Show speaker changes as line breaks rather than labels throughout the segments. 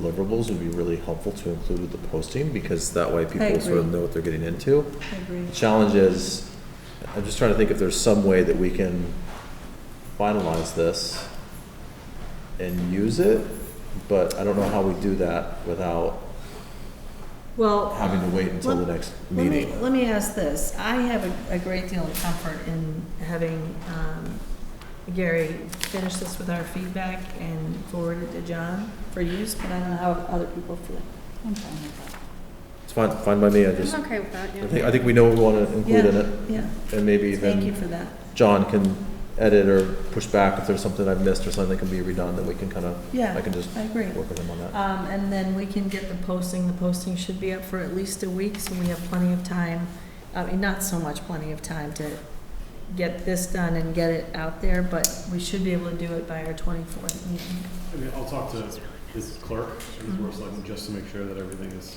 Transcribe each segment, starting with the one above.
deliverables would be really helpful to include with the posting, because that way people
I
sort of
agree.
know what they're getting into.
I agree.
The Challenge is, I'm just trying to think if there's some way that we can finalize this and use it, but I don't know how we do that without
Well,
having to wait until the
Let-
next
let me,
meeting.
let me ask this. I have a, a great deal of comfort in having, um, Gary finish this with our feedback and forward it to John for use, but I don't know how other people feel.
It's fine, fine by me, I just,
I'm okay with that,
I
yeah.
think, I think we know what we want to include in it,
Yeah,
and maybe
thank you
even
for that.
John can edit or push back if there's something I've missed or something that can be redone, that we can kind of, I
Yeah,
can just
I agree.
work with him on that.
Um, and then we can get the posting, the posting should be up for at least a week, so we have plenty of time, I mean, not so much plenty of time to get this done and get it out there, but we should be able to do it by our twenty-fourth meeting.
I mean, I'll talk to his clerk and his work selectman just to make sure that everything is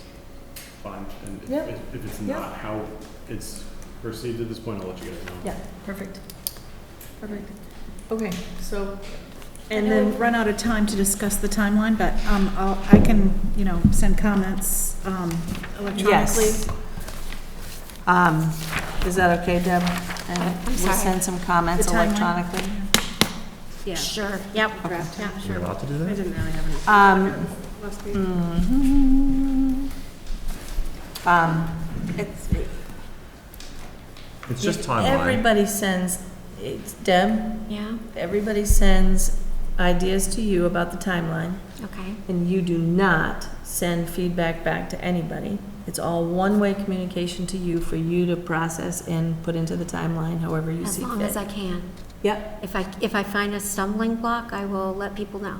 fine. And if-
Yep.
if, if it's
Yep.
not how it's perceived at this point, I'll let you guys know.
Yeah, perfect, perfect. Okay, so, and then,
run out of time to discuss the timeline, but, um, I'll, I can, you know, send comments, um,
yes. Um, is that okay, Deb? And
I'm
we'll
sorry.
send some comments
The timeline?
electronically.
Yeah. Sure. Yep. Yeah,
You're
sure.
allowed to do
I
that?
didn't really have any.
Um,
Last week.
mhm. Um, it's,
It's just
If
timeline.
Everybody sends, it's Deb,
Yeah,
everybody sends ideas to you about the timeline,
okay,
and you do not send feedback back to anybody. It's all one-way communication to you for you to process and put into the timeline however you
as
see
long as
fit.
I can.
Yep.
If I, if I find a stumbling block, I will let people know.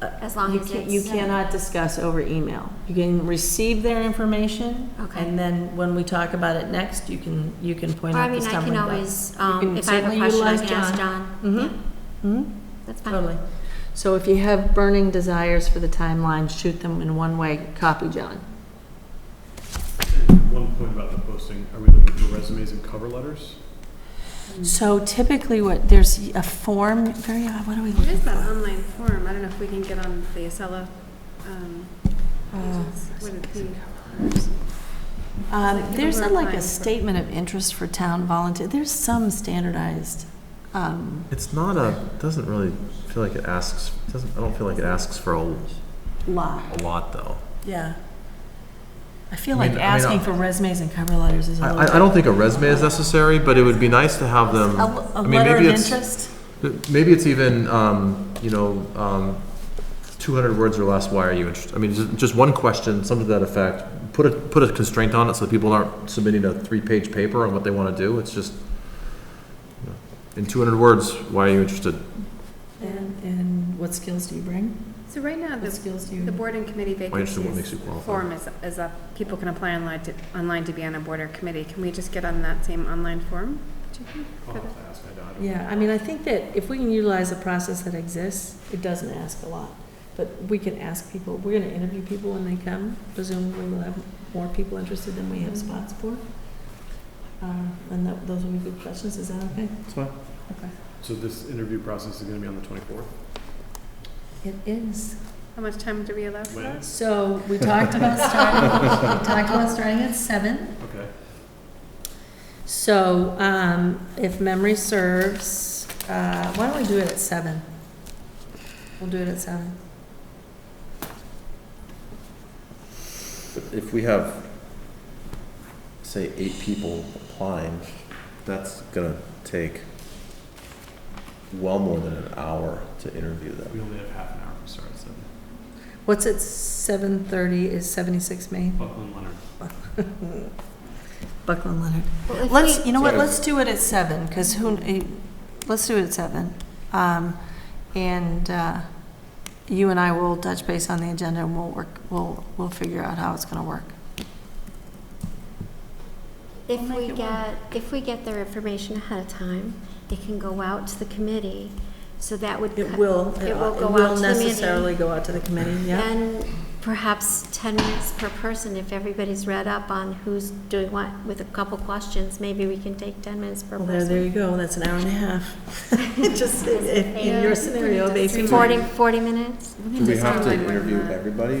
As long
Uh, You
as
can't-
it's. uh,
You cannot discuss over email. You can receive their information,
Okay.
and then when we talk about it next, you can, you can point
Or I
out the
mean, I
stumbling
can
block.
always,
can
um, if I have a
certainly
question, I
utilize
can ask John. Yeah,
Mhm. Mhm.
That's fine.
Totally. So if you have burning desires for the timeline, shoot them in one way, copy John.
And One point about the posting, are we looking for resumes and cover letters?
So typically what, there's a form, very, odd, what are we
What
looking
is that
for?
online form? I don't know if we can get on the Acela, um,
Uh,
pages. What it be?
Um, There's a- like
Online
a
for-
statement of interest for town volunteer, there's some standardized, um,
It's not a, doesn't really feel like it asks, doesn't, I don't feel like it asks for a,
lot.
a lot, though.
Yeah. I feel
I mean-
like
I mean,
asking
I-
for resumes and cover letters is a
I,
little.
I- I don't think a resume is necessary, but it would be nice to have them.
A l- A
I mean,
letter of
maybe it's-
interest?
Maybe it's even, um, you know, um, two hundred words or less, why are you interested? I mean, just, just one question, something to that effect. Put a, put a constraint on it so that people aren't submitting a three-page paper on what they wanna do. It's just, you know, in two hundred words, why are you interested?
And, and what skills do you bring?
So right now,
What
the,
skills do you?
the board and committee
Why interested, what makes
vacancies
you qualified?
form is, is up. People can apply online to, online to be on a board or committee. Can we just get on that same online form? do you think?
I'll have to ask, I don't- I don't.
Yeah, I mean, I think that if we can utilize a process that exists, it doesn't ask a lot. But we can ask people, we're gonna interview people when they come, presumably we'll have more people interested than we have
Mm-hmm.
spots for. Uh, And that, those will be good questions, is that okay?
That's fine.
So this interview process is gonna be on the twenty-fourth?
It is.
How much time do we allow for
When?
that?
So, we talked about starting, we talked about starting at seven.
Okay.
So, um, if memory serves, uh, why don't we do it at seven? We'll do it at seven.
If we have, say, eight people applying, that's gonna take well more than an hour to interview them.
We only have half an hour, we start at seven.
What's at seven thirty is seventy-six Main?
Buckland Leonard.
Buckland Leonard.
Well, if
Let's,
we-
you know what,
Sort of.
let's do it at seven, because who, eh, let's do it at seven. Um, And uh, you and I will touch base on the agenda and we'll work, we'll, we'll figure out how it's gonna work.
If we get, if we get their information ahead of time, it can go out to the committee, so that would. cut-
will,
uh, it will go out to the meeting.
go out to the committee,
And perhaps 10 minutes per person, if everybody's read up on who's doing what, with a couple questions, maybe we can take 10 minutes per
Well, there, there
person.
you go, that's an hour and a half. Just in, in your scenario, basically.
Forty, forty minutes?
Do we have to interview everybody,